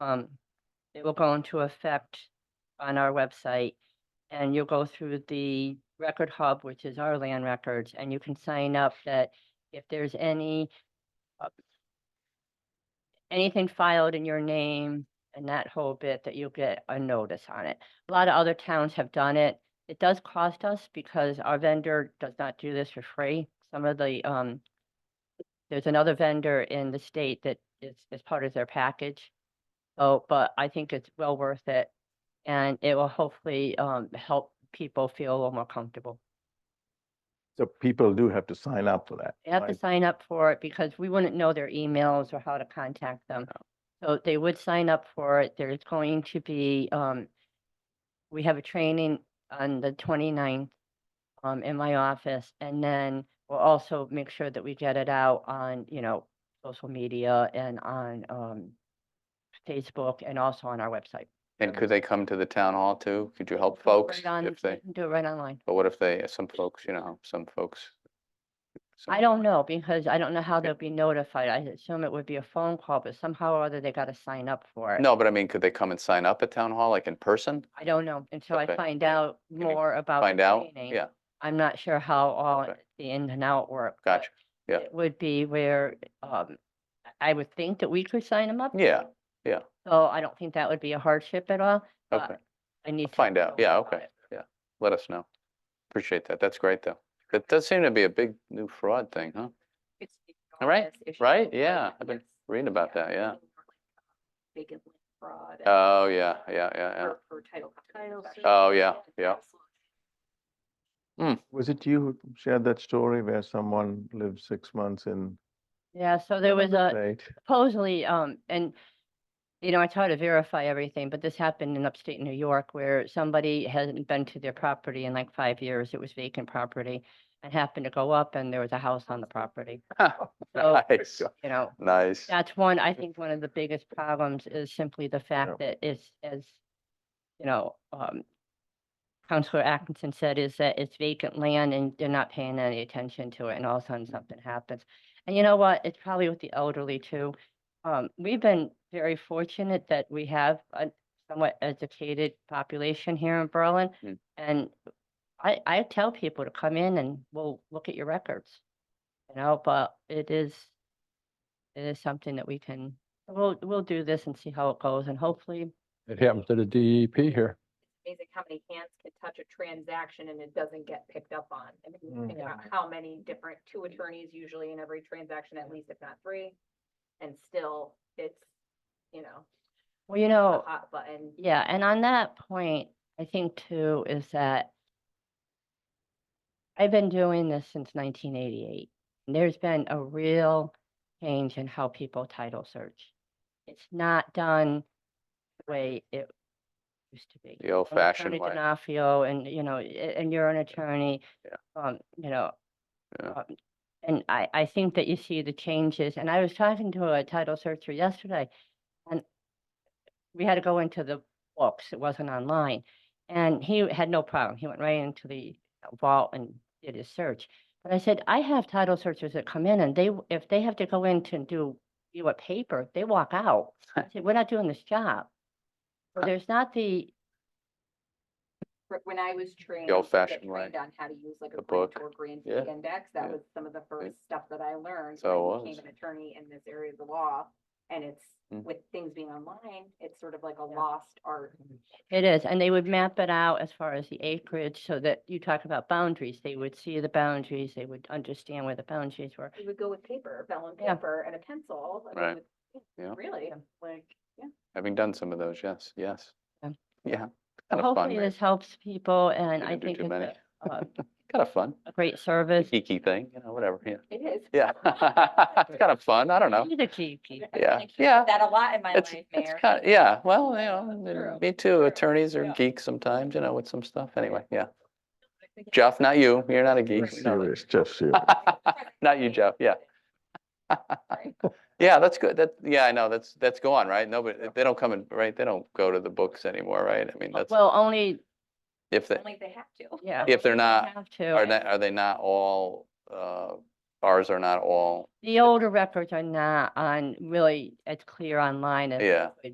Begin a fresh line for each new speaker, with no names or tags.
um, it will go into effect on our website. And you'll go through the record hub, which is our land records, and you can sign up that if there's any uh, anything filed in your name and that whole bit, that you'll get a notice on it. A lot of other towns have done it. It does cost us because our vendor does not do this for free. Some of the, um, there's another vendor in the state that is, is part of their package. So, but I think it's well worth it and it will hopefully, um, help people feel a little more comfortable.
So people do have to sign up for that.
They have to
right?
sign up for it because we wouldn't know their emails or how to contact them. So they would sign up for it. There's going to be, um, we have a training on the 29th um, in my office, and then we'll also make sure that we get it out on, you know, social media and on, um, Facebook and also on our website.
And could they come to the town hall too? Could you help
Do it
folks
right on-
if they,
Do it right online.
but what if they, some folks, you know, some folks? some-
I don't know, because I don't know how
Okay.
they'll be notified. I assume it would be a phone call, but somehow or other they gotta sign up for it.
No, but I mean, could they come and sign up at town hall, like in person?
I don't know until I
Okay.
find out
you
more about. the
Find out?
training.
Yeah,
I'm not sure how all
Okay.
the in and out work. but
gotcha. yeah.
It would be where, um, I would think that we could sign them up.
Yeah,
So I don't think that would be a hardship at all. but
okay.
I need to.
Find out.
know
Yeah,
about
okay.
it.
Yeah. Let us know. Appreciate that. That's great, though. That does seem to be a big new fraud thing, huh?
it's the
Right,
enormous issue
right,
with
yeah, I've been
this,
Reading about that, yeah.
and
uh,
Big and fraud. and
Oh, yeah, yeah, yeah, yeah.
For for title. company
Title
especially.
search.
Oh, yeah, yeah.
Absolutely.
Was it you who shared that story where someone lived six months in
Yeah, so there was a,
state?
supposedly, um, and, you know, I try to verify everything, but this happened in upstate New York where somebody hadn't been to their property in like five years. It was vacant property. And happened to go up and there was a house on the property, So-
Nice,
you know.
nice.
That's one, I think one of the biggest problems is simply the fact that it's, as, you know, um, Counselor Atkinson said is that it's vacant land and they're not paying any attention to it and all of a sudden something happens. And you know what? It's probably with the elderly too. Um, we've been very fortunate that we have a somewhat educated population here in Berlin.
Mm.
And I, I tell people to come in and we'll look at your records. You know, but it is, it is something that we can, we'll, we'll do this and see how it goes and hopefully,
It happens to the DEP here.
amazing how many hands can touch a transaction and it doesn't get picked up on. I mean, you
Mm.
think about how many different, two attorneys usually in every transaction, at least if not three. And still, it's, you know,
well, you
a
know,
hot button.
yeah, and on that point, I think too, is that I've been doing this since nineteen eighty-eight. and There's been a real change in how people title search. It's not done the way it used to be.
The old-fashioned
Attorney
way.
D'Onofrio and, you know, a- and you're an attorney.
Yeah.
Um, you know.
Yeah.
um, And I, I think that you see the changes, and I was talking to a title searcher yesterday, and we had to go into the books, it wasn't online, and he had no problem, he went right into the vault and did his search. But I said, I have title searchers that come in and they, w- if they have to go in to do, do a paper, they walk out. I said, we're not doing this job. So
Huh.
there's not the,
Fr- When I was trained. to get
old-fashioned way.
trained On how to use like
The
a
book.
grant or grant
Yeah.
index, that
Yeah.
was some of the first stuff that I learned.
So
when
it was.
I Became an attorney in this area of the law, and it's,
Mm.
with things being online, it's sort of like a
Yeah.
lost art.
it is, and they would map it out as far as the acreage so that you talk about boundaries. They would see the boundaries, they would understand where the boundaries were.
We would go with paper, vellum
Yeah.
paper and a pencil. I mean,
Right.
with-
Yeah.
Really,
Yeah.
like, yeah.
Having done some of those, yes, yes.
Yeah.
Yeah. Kind of fun,
Hopefully
right?
this helps people and
We
I
didn't do
think
too
it's
many.
a, uh,
Kind of fun.
a great service.
Geeky thing, you know, whatever, yeah.
it is.
Yeah. It's kind of fun. I don't know.
He's a geeky.
I
Yeah,
think
yeah.
That a lot in my
It's,
life,
it's
Mayor.
kind, yeah, well, you know,
True,
and me too. Attorneys are
yeah.
geeks sometimes, you know, with some stuff. Anyway, yeah. Jeff, not you. You're not a geek.
Right.
No.
Serious, just serious.
Not you, Jeff, yeah. Yeah, that's good. That, yeah, I know. That's, that's gone, right? Nobody, they don't come in, right? They don't go to the books anymore, right? I mean, that's,
Well, only,
if they,
Oh, Only they have to.
yeah.
if they're not,
Have to.
are
and-
they, are they not all, uh, ours are not all,
The older records are not on really as clear online as. they
Yeah.
would